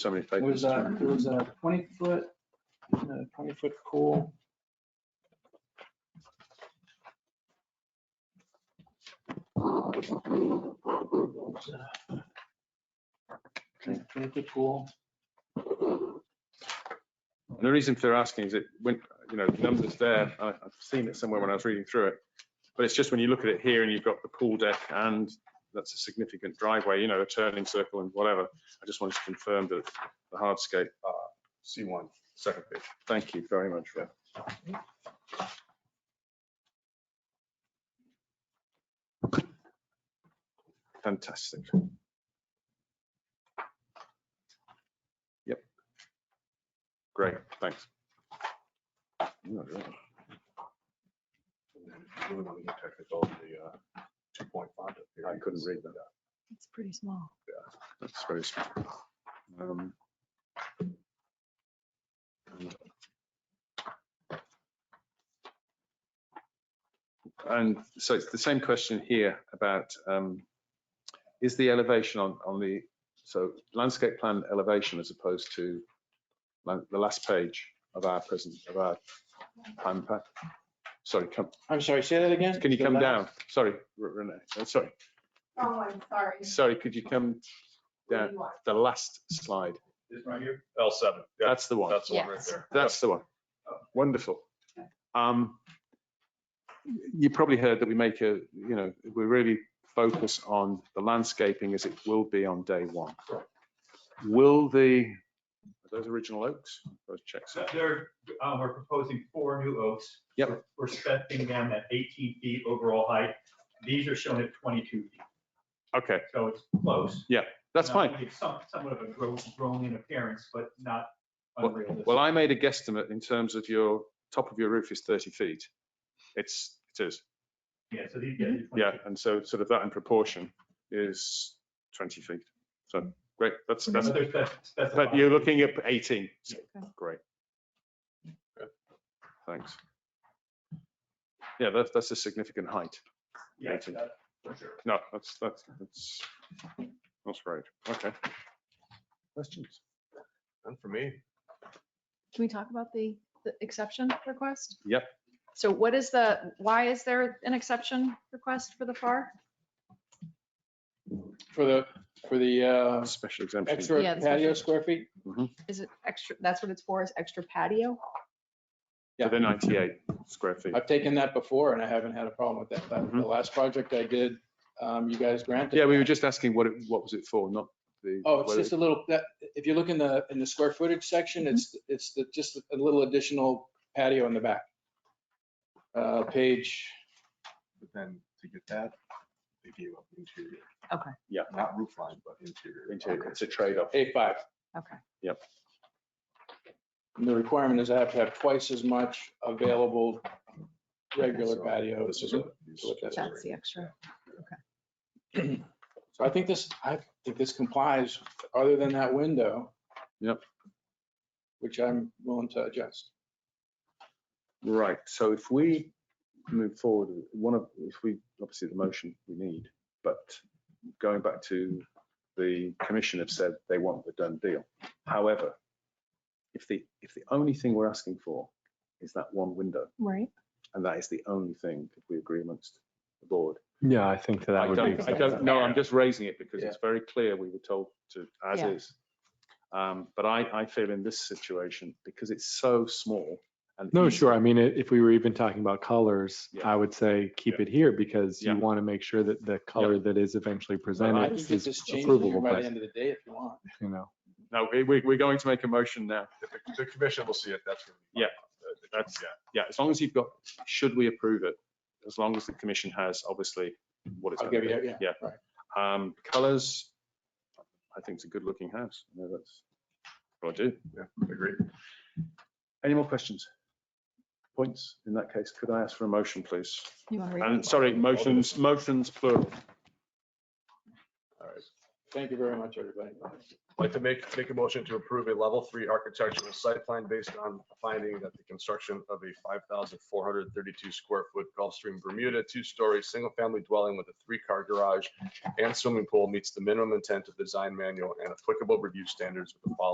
somebody. It was a, it was a twenty foot, twenty foot pool. Twenty foot pool. And The reason for asking is it, when, you know, the number's there, I, I've seen it somewhere when I was reading through it. But it's just when you look at it here and you've got the pool deck and that's a significant driveway, you know, a turning circle and whatever. I just wanted to confirm that the hardscape, uh, C1, second page. Thank you very much, Rob. Fantastic. Yep. Great, thanks. No, you're right. Really want to get technical, the uh, 2.5 up here. I couldn't read that. It's pretty small. That's very small. Um, And so it's the same question here about, um, is the elevation on, on the, so landscape plan elevation as opposed to la- the last page of our present, of our plan pack? Sorry, come, I'm sorry, say that again? can you The come left- down? Sorry, R- Renee, Uh, sorry, Oh, I'm sorry. sorry, could you come What do down? you want? The last slide. This right here? L7. Yeah, That's the one. that's the one right Yes. there. That's the one. Wonderful. Um, you probably heard that we make a, you know, we really focus on the landscaping as it will be on day one. Will the, are those original oaks, those checks? So There, uh, we're proposing four new oaks. Yep. We're- We're setting them at 18 feet overall height. These are shown at 22 feet, Okay, so it's close. that's Now, fine. It's some- somewhat of a grow- grown in appearance, but not Well- unrealistic. Well, I made a guesstimate in terms of your, top of your roof is 30 feet. It's, it is, Yeah, so these guys are 22. yeah, and so sort of that in proportion is 20 feet. So, great, that's, that's, But they're spec- But specified. you're looking at 18. Great. Thanks. Yeah, that's, that's a significant height. Yeah, that- for sure. No, that's, that's, that's, that's great. Okay. Questions? And for me, Can we talk about the, the exception request? Yep. So what is the, why is there an exception request for the FAR? For the, for the uh, Special exemption. extra Yeah, the patio special- square feet? Is it extra, that's what it's for, is extra patio? For the 98 square feet. I've taken that before and I haven't had a problem with that. That- The Mhm. last project I did, um, you guys granted. Yeah, we were that. just asking what it, what was it for, not the. Oh, it's whether just a little, that, if you look in the, in the square footage section, it's, it's the- just a little additional patio in the back. Uh, page, but then to get that, they gave up interior. Okay. Yeah. Not roof line, but interior. interior, It's a trade-off. A five. Okay. Yep. And the requirement is I have to have twice as much available regular So, patio. This is what. So what that's That's the extra. So I think this, I think this complies, other than that window. Yep. Which I'm willing to adjust. Right, so if we move forward, one of, if we, obviously the motion we need, but going back to the commission have said they want the done deal. However, if the, if the only thing we're asking for is that one window, Right. and that is the only thing that we agree amongst the board. Yeah, I think that I that would be. don't, I don't know, I'm just raising it because Yeah. it's very clear we were told to, as Yeah. is. Um, But I, I feel in this situation, because it's so small and. No, easy- sure. I mean, i- if we were even talking about colors, Yeah. I would say keep Yeah. it here because Yeah. you want to make sure that the color that is eventually I presented can get is this changed here approvable, by the but, end of the day if you want. you know. No, we, we- we're going to make a motion now. If the- The commission will see it, that's. what we- Yeah, that's- Yeah. yeah, as long as you've got, should we approve it? As long as the commission has obviously what it's. I'll gonna give you, be. yeah. Yeah. Right. Um, colors, I think it's a good looking house. I know that's what I do. Yeah, agree. Any more questions? Points? In that case, could I ask for a motion, please? You want to read? And sorry, motions, motions plural. All right. Thank you very much, everybody. I'd Like to make, make a motion to approve a level three architectural site plan based on finding that the construction of a five thousand four hundred thirty-two square foot Gulfstream Bermuda two-story, single-family dwelling with a three-car garage and swimming pool meets the minimum intent of the design manual and applicable review standards with the following